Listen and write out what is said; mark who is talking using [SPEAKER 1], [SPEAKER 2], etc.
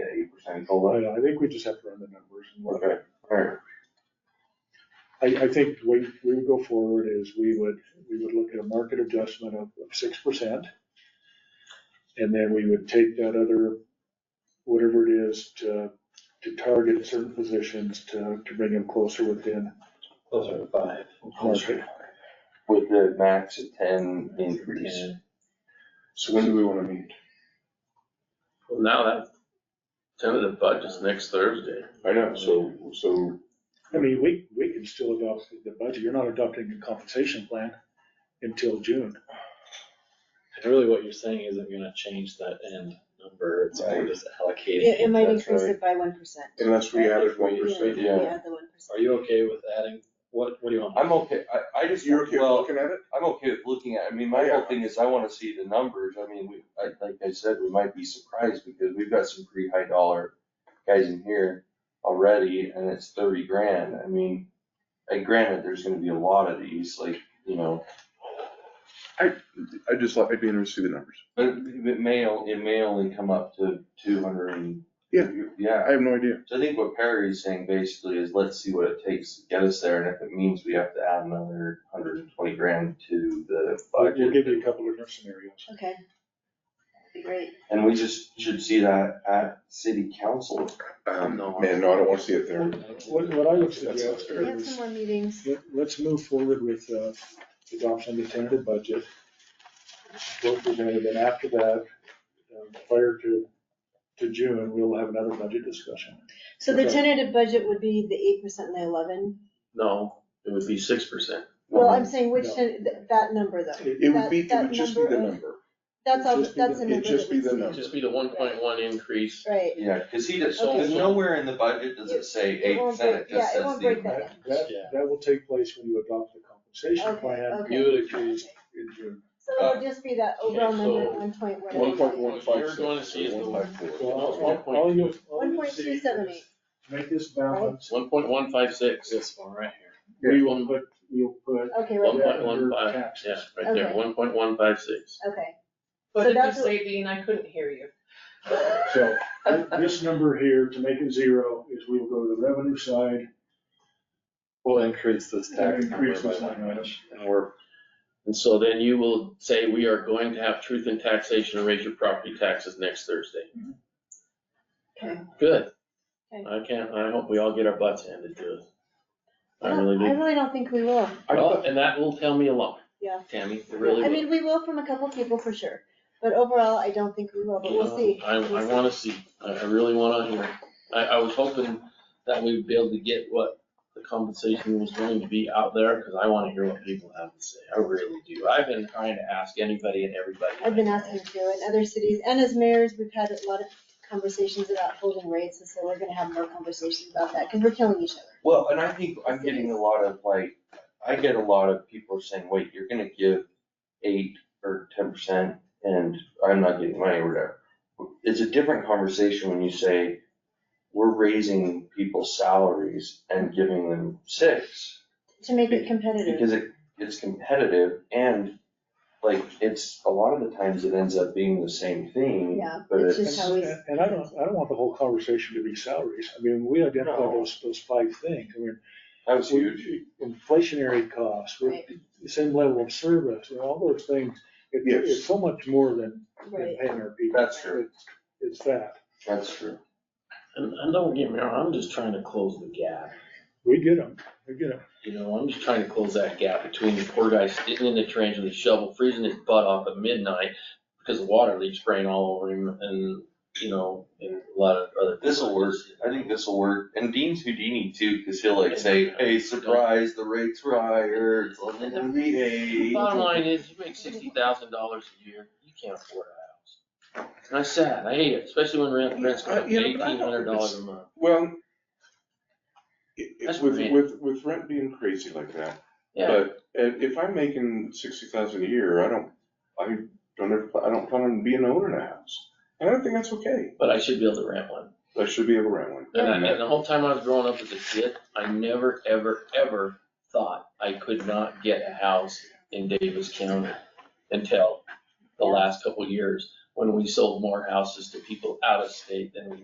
[SPEAKER 1] and COLA?
[SPEAKER 2] I think we just have to run the numbers. and what-
[SPEAKER 1] Okay, alright,
[SPEAKER 2] I, I think the way we would go forward is we would, we would look at a market adjustment of six percent. And then we would take that other, whatever it is, to, to target certain positions to, to bring them closer within
[SPEAKER 3] Those are five.
[SPEAKER 2] market.
[SPEAKER 1] with the max of ten increase.
[SPEAKER 4] So when do we wanna meet?
[SPEAKER 5] Well, now that tentative budget's next Thursday.
[SPEAKER 4] I know, so, so,
[SPEAKER 2] I mean, we, we can still adopt the budget. You're not adopting a compensation plan until June.
[SPEAKER 3] Really what you're saying isn't gonna change that end number, it's more just allocating.
[SPEAKER 6] It, it might
[SPEAKER 4] That's
[SPEAKER 6] increase
[SPEAKER 4] right.
[SPEAKER 6] it by one percent.
[SPEAKER 4] unless we added one percent,
[SPEAKER 1] Yeah.
[SPEAKER 6] the one percent.
[SPEAKER 3] Are you okay with adding, what, what do you want?
[SPEAKER 1] I'm okay, I, I just,
[SPEAKER 4] you're okay with
[SPEAKER 1] well,
[SPEAKER 4] looking at it?
[SPEAKER 1] I'm okay with looking at, I mean, my whole thing is I wanna see the numbers, I mean, we, I, like I said, we might be surprised because we've got some pretty high dollar guys in here already, and it's thirty grand, I mean, and granted, there's gonna be a lot of these, like, you know,
[SPEAKER 4] I just like, I'd be interested to see the numbers.
[SPEAKER 1] but it may, o- it may only come up to two hundred and.
[SPEAKER 4] Yeah.
[SPEAKER 1] Yeah,
[SPEAKER 4] I have no idea.
[SPEAKER 1] so I think what Perry's saying basically is let's see what it takes to get us there, and if it means we have to add another hundred and twenty grand to the
[SPEAKER 2] We'll
[SPEAKER 1] budget.
[SPEAKER 2] we'll give you a couple of different scenarios.
[SPEAKER 6] Okay. That'd Be great.
[SPEAKER 1] And we just should see that at city council.
[SPEAKER 4] Um,
[SPEAKER 5] No.
[SPEAKER 4] man, no, I don't wanna see it there.
[SPEAKER 2] What, what I would
[SPEAKER 4] That's not
[SPEAKER 2] suggest
[SPEAKER 4] fair.
[SPEAKER 6] We have
[SPEAKER 2] is,
[SPEAKER 6] some more meetings.
[SPEAKER 2] let, let's move forward with, uh, adoption of the tentative budget. Work we're gonna, then after that, um, prior to, to June, we'll have another budget discussion.
[SPEAKER 6] So the
[SPEAKER 2] Okay.
[SPEAKER 6] tentative budget would be the eight percent and the eleven.
[SPEAKER 5] No, it would be six percent.
[SPEAKER 6] Well, I'm saying which,
[SPEAKER 2] No.
[SPEAKER 6] ten- th- that number though.
[SPEAKER 4] It would be, it
[SPEAKER 6] That-
[SPEAKER 4] would just be
[SPEAKER 6] that
[SPEAKER 4] the
[SPEAKER 6] number
[SPEAKER 4] number.
[SPEAKER 6] That's all,
[SPEAKER 2] It'd just be
[SPEAKER 6] that's
[SPEAKER 2] the-
[SPEAKER 6] a
[SPEAKER 4] it'd
[SPEAKER 6] number
[SPEAKER 4] just
[SPEAKER 6] that we
[SPEAKER 4] be the
[SPEAKER 6] see.
[SPEAKER 4] number.
[SPEAKER 5] Just be the one point one increase.
[SPEAKER 6] Right.
[SPEAKER 1] Yeah, cause he does,
[SPEAKER 6] Okay.
[SPEAKER 1] cause nowhere in the budget does it say eight
[SPEAKER 6] It won't
[SPEAKER 1] percent, it
[SPEAKER 6] break- yeah,
[SPEAKER 1] just
[SPEAKER 6] it
[SPEAKER 1] says
[SPEAKER 6] won't
[SPEAKER 1] the.
[SPEAKER 6] break that.
[SPEAKER 2] That, that, that will take place when you adopt the compensation
[SPEAKER 6] Okay,
[SPEAKER 2] plan
[SPEAKER 6] okay.
[SPEAKER 3] You would increase,
[SPEAKER 6] Okay.
[SPEAKER 2] in June.
[SPEAKER 6] So it'll just be that overall number at one point one.
[SPEAKER 4] One point one five
[SPEAKER 5] You're
[SPEAKER 4] six,
[SPEAKER 5] gonna see is the-
[SPEAKER 4] or one five
[SPEAKER 2] So
[SPEAKER 4] four.
[SPEAKER 2] all- all- all you- all
[SPEAKER 6] One
[SPEAKER 2] you
[SPEAKER 6] point
[SPEAKER 2] see
[SPEAKER 6] two seven eight.
[SPEAKER 2] is Make this balance,
[SPEAKER 5] One point one five six.
[SPEAKER 3] this one right here.
[SPEAKER 2] we will put, we'll put
[SPEAKER 6] Okay,
[SPEAKER 5] One
[SPEAKER 6] right,
[SPEAKER 2] Yeah,
[SPEAKER 5] point one
[SPEAKER 2] under
[SPEAKER 5] five, yeah,
[SPEAKER 2] taxes.
[SPEAKER 5] right there,
[SPEAKER 6] Okay.
[SPEAKER 5] one point one five six.
[SPEAKER 6] okay.
[SPEAKER 7] What
[SPEAKER 6] So
[SPEAKER 7] did you
[SPEAKER 6] that's what-
[SPEAKER 7] say, Dean? I couldn't hear you.
[SPEAKER 2] So th- this number here, to make it zero, is we will go to the revenue side
[SPEAKER 3] We'll increase this
[SPEAKER 2] and
[SPEAKER 3] tax number
[SPEAKER 2] increase
[SPEAKER 3] by
[SPEAKER 2] this
[SPEAKER 3] that
[SPEAKER 2] line item.
[SPEAKER 3] much, and we're
[SPEAKER 5] And so then you will say, we are going to have truth in taxation and raise your property taxes next Thursday.
[SPEAKER 6] Okay.
[SPEAKER 5] Good.
[SPEAKER 6] Okay.
[SPEAKER 5] I can't, I hope we all get our butts handed to us. I really
[SPEAKER 6] I
[SPEAKER 5] do.
[SPEAKER 6] really don't think we will.
[SPEAKER 4] I
[SPEAKER 5] Well, and that will tell me a lot.
[SPEAKER 6] Yeah.
[SPEAKER 5] Tammy, it really
[SPEAKER 6] I
[SPEAKER 5] will.
[SPEAKER 6] mean, we will from a couple people for sure, but overall, I don't think we will, but we'll see.
[SPEAKER 5] I, I
[SPEAKER 6] We'll see.
[SPEAKER 5] wanna see, I, I really wanna hear. I, I was hoping that we'd be able to get what the compensation was going to be out there, cause I wanna hear what people have to say, I really do. I've been trying to ask anybody and everybody.
[SPEAKER 6] I've been asking to do in other cities, and as mayors, we've had a lot of conversations about holding rates, and so we're gonna have more conversations about that, because we're killing each other.
[SPEAKER 1] Well, and I think I'm getting a lot of like, I get a lot of people saying, wait, you're gonna give eight or ten percent and I'm not getting money or whatever. It's a different conversation when you say, we're raising people's salaries and giving them six.
[SPEAKER 6] To make it competitive,
[SPEAKER 1] Because it, it's competitive and like, it's, a lot of the times it ends up being the same thing.
[SPEAKER 6] Yeah,
[SPEAKER 1] But
[SPEAKER 6] it's
[SPEAKER 1] it's,
[SPEAKER 6] just how we-
[SPEAKER 2] And and I don't, I don't want the whole conversation to be salaries. I mean, we identify
[SPEAKER 1] No.
[SPEAKER 2] those, those five things. I mean,
[SPEAKER 1] that was huge.
[SPEAKER 2] inflationary costs, we're- the same level of service, and all those things. It-
[SPEAKER 4] Yes.
[SPEAKER 2] It's so much more than than
[SPEAKER 6] right?
[SPEAKER 2] paying our people.
[SPEAKER 1] That's true.
[SPEAKER 2] It's- It's that.
[SPEAKER 1] That's true.
[SPEAKER 5] And, and don't get me wrong, I'm just trying to close the gap.
[SPEAKER 2] We get them, we get them.
[SPEAKER 5] You know, I'm just trying to close that gap between the poor guy sitting in the trench with a shovel, freezing his butt off at midnight because the water leaks spraying all over him and, you know, and a lot of other.
[SPEAKER 1] This'll work. I think this'll work. And Dean's Houdini too, cause he'll like say, hey, surprise, the rates were higher, it's only gonna be eight.
[SPEAKER 5] Bottom line is, you make sixty thousand dollars a year, you can't afford a house. And I sad, I hate it, especially when rent, rents go
[SPEAKER 4] Uh,
[SPEAKER 5] up
[SPEAKER 4] you know,
[SPEAKER 5] eighteen
[SPEAKER 4] but I don't-
[SPEAKER 5] hundred dollars a month.
[SPEAKER 4] Well, i- i-
[SPEAKER 5] That's
[SPEAKER 4] with,
[SPEAKER 5] rent.
[SPEAKER 4] with, with rent being crazy like that,
[SPEAKER 5] Yeah,
[SPEAKER 4] But if, if I'm making sixty thousand a year, I don't, I don't ever, I don't plan on being an owner in a house. And I think that's okay.
[SPEAKER 5] but I should be able to rent one.
[SPEAKER 4] I should be able to rent one.
[SPEAKER 5] And I, and the whole time I was growing up as a kid, I never, ever, ever thought I could not get a house in Davis County until the last couple years, when we sold more houses to people out of state than we